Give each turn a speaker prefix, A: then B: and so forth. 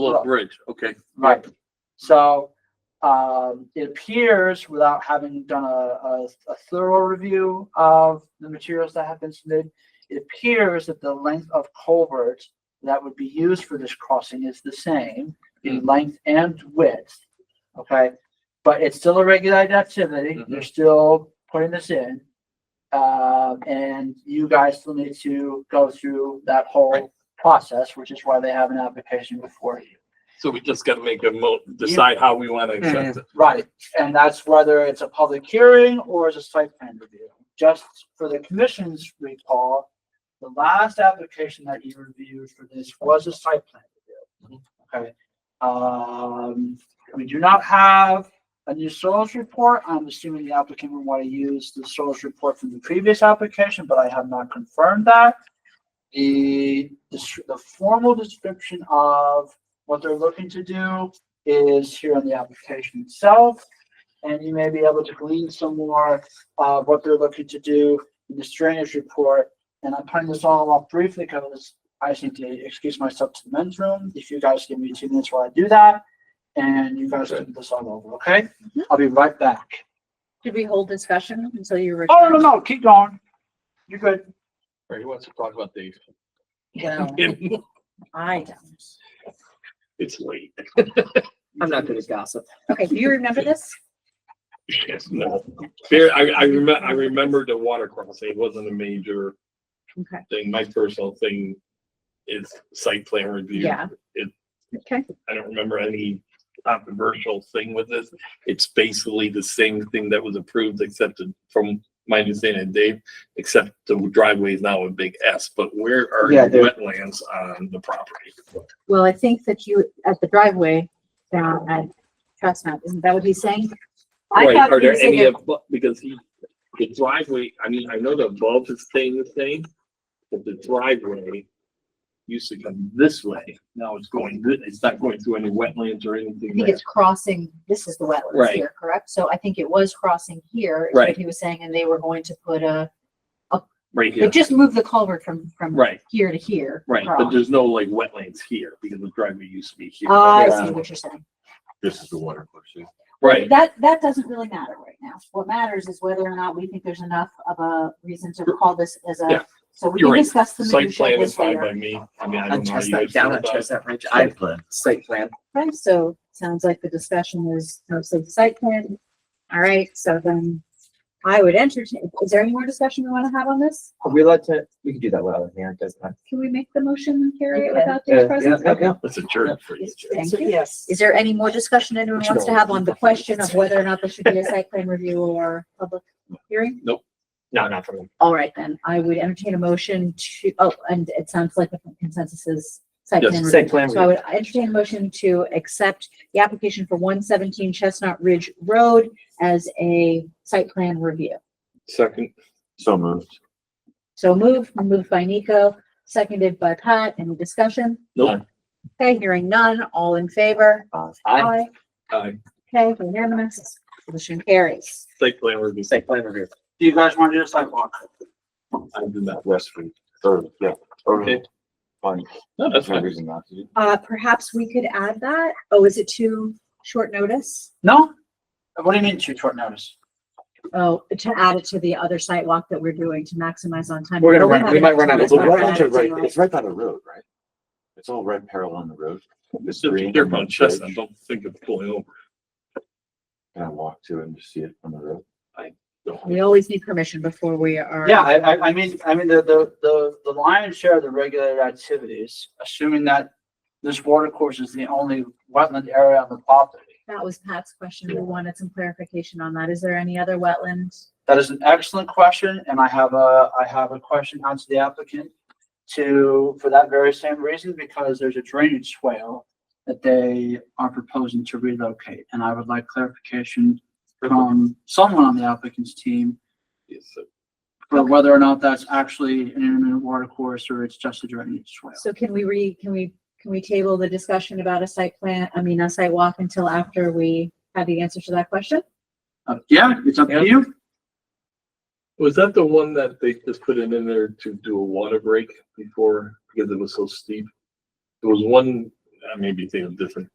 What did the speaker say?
A: Little bridge, okay.
B: Right. So, um, it appears without having done a, a, a thorough review of the materials that have been submitted, it appears that the length of culvert that would be used for this crossing is the same in length and width. Okay, but it's still a regulated activity.
A: Mhm.
B: They're still putting this in. Uh, and you guys still need to go through that
A: Right.
B: whole process, which is why they have an application before you.
A: So we just gotta make a mo, decide how we wanna accept it.
B: Right, and that's whether it's a public hearing or it's a site plan review. Just for the commission's recall, the last application that you reviewed for this was a site plan review. Okay, um, we do not have a new soils report. I'm assuming the applicant would want to use the soils report from the previous application, but I have not confirmed that. The, the, the formal description of what they're looking to do is here on the application itself. And you may be able to glean some more of what they're looking to do in the drainage report. And I'm putting this all off briefly because I just need to excuse myself to the men's room. If you guys give me two minutes while I do that, and you guys
A: Okay.
B: do this all over, okay? I'll be right back.
C: Did we hold discussion until you were?
B: Oh, no, no, no, keep going. You're good.
A: Or he wants to talk about these.
C: Well, I don't.
A: It's late.
D: I'm not gonna gossip.
C: Okay, do you remember this?
A: Yes, no. There, I, I remember, I remember the water crossing. It wasn't a major
C: Okay,
A: thing. My personal thing is site plan review.
C: Yeah.
A: It,
C: okay,
A: I don't remember any controversial thing with this. It's basically the same thing that was approved, except from my understanding, Dave, except the driveway is now a big S, but where are
B: Yeah,
A: your
B: there-
A: wetlands on the property?
C: well, I think that you, at the driveway down at Chestnut, isn't that what he's saying? I
A: Right,
C: thought
A: are
C: he
A: there
C: was
A: any
C: saying
A: of, because he, the driveway, I mean, I know the bulb is staying the same, but the driveway used to come this way. Now it's going, thi- it's not going through any wetlands or
C: I
A: anything
C: think
A: there.
C: it's crossing, this is the wetlands
A: Right.
C: here, correct? So I think it was crossing here, is what
A: Right.
C: he was saying, and they were going to put a,
A: Right
C: they
A: here,
C: just moved the culvert from, from
A: right,
C: here to here.
A: right, but
C: across.
A: there's no like wetlands here because the driveway used to be here.
C: Ah, I
A: Yeah.
C: see what you're saying.
E: This is the water question.
A: Right,
C: That, that doesn't really matter right now. What matters is whether or not we think there's enough of a reason to call this as
A: Yeah.
C: a, so we
A: You're
C: can
A: right.
C: discuss the
A: site
C: minutia of
A: plan is
C: this
A: fine
C: later.
A: by me. I mean, I don't know.
D: On
A: how you
D: Chestnut,
A: guys
D: down
A: feel
D: on
A: about it.
D: Chestnut Ridge. I,
E: plan.
D: site plan.
C: Right, so sounds like the discussion is mostly the site plan. All right, so then I would entertain, is there any more discussion we want to have on this?
D: Are we allowed to, we can do that without a hand, doesn't it?
C: Can we make the motion and carry it
D: You can.
C: without Dave's presence?
D: Yeah, yeah, yeah.
A: It's a church for you.
C: Thank
D: So,
C: you.
D: Yes.
C: Is there any more discussion anyone wants to have on the question of whether or not there should be a site plan review or public hearing?
D: No, not for me.
C: All right, then I would entertain a motion to, oh, and it sounds like the consensus is site
A: Yes,
C: plan review.
D: Site plan.
C: So I would entertain a motion to accept the application for one seventeen Chestnut Ridge Road as a site plan review.
A: Second,
E: So moved.
C: So moved, moved by Nico, seconded by Pat. Any discussion?
A: nope,
C: Okay, hearing none. All in favor?
D: I,
A: aye,
C: Okay, unanimous. Motion carries.
A: site plan review.
D: site plan review.
B: Do you guys want to do a sidewalk?
A: I did that.
E: Yes, we, third, yeah.
A: Okay.
E: Fine.
A: No, that's
E: That's no
A: fine.
E: reason not to.
C: Uh, perhaps we could add that. Oh, is it too short notice?
B: No? What do you mean too short notice?
C: Oh, to add it to the other site walk that we're doing to maximize on time.
D: We're gonna
C: But
D: run-
C: have
D: we
C: it
D: might run out of
E: It's
C: to-
D: time.
C: we're gonna
E: right,
C: have it to-
E: it's right by the road, right? It's all right parallel on the road. It's
A: Just
E: green
A: They're
E: and
A: on
E: then
A: Chestnut.
E: bridge.
A: Don't think of pulling over.
E: Can I walk to it and just see it from the road?
C: We always need permission before we are.
B: Yeah, I, I, I mean, I mean, the, the, the, the lion's share of the regulated activities, assuming that this water course is the only wetland area on the property.
C: That was Pat's question. We wanted some clarification on that. Is there any other wetlands?
B: That is an excellent question, and I have a, I have a question out to the applicant to, for that very same reason, because there's a drainage swale that they are proposing to relocate, and I would like clarification from someone on the applicant's team
A: Yes, sir.
B: for whether or not that's actually an intermittent water course or it's just a drainage swale.
C: So can we re, can we, can we table the discussion about a site plan, I mean, a site walk until after we have the answer to that question?
B: Uh, Yeah, it's up to you.
A: Was that the one that they just put it in there to do a water break before, because it was so steep? There was one uh, I may be thinking of different